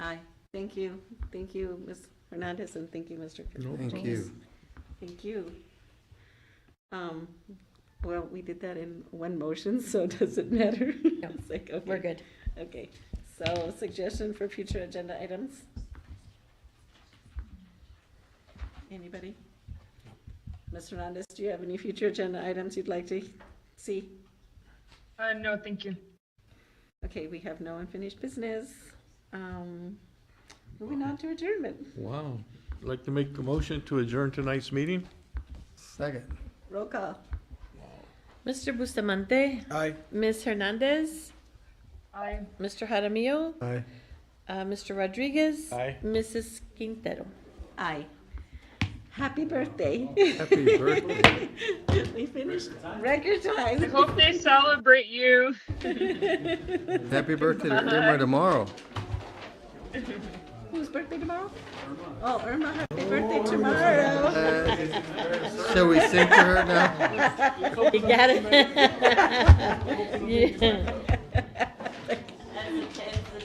Thank you, thank you, Ms. Hernandez, and thank you, Mr. No Contreras. problem. you. Thank you. Um, well, we did that in one motion, so does it matter? No, It's like, We're okay, good. Okay, so suggestion for future agenda items? Anybody? Ms. Hernandez, do you have any future agenda items you'd like to see? Uh, no, thank you. Okay, we have no unfinished business. Um, moving on to adjournment. Wow. I'd Like to make a motion to adjourn tonight's meeting? Second. Roll call. Mr. Bustamante, Aye. Ms. Hernandez, I. Mr. Jaramillo, Aye. uh, Mr. Rodriguez. Aye. Mrs. Quintero. Aye. Happy birthday. Happy birthday. We finished record I time. hope they celebrate you. Happy birthday to Irma tomorrow. Whose birthday tomorrow? Oh, Irma, happy birthday tomorrow. Uh, Shall we sing to her now? You got it. Yeah.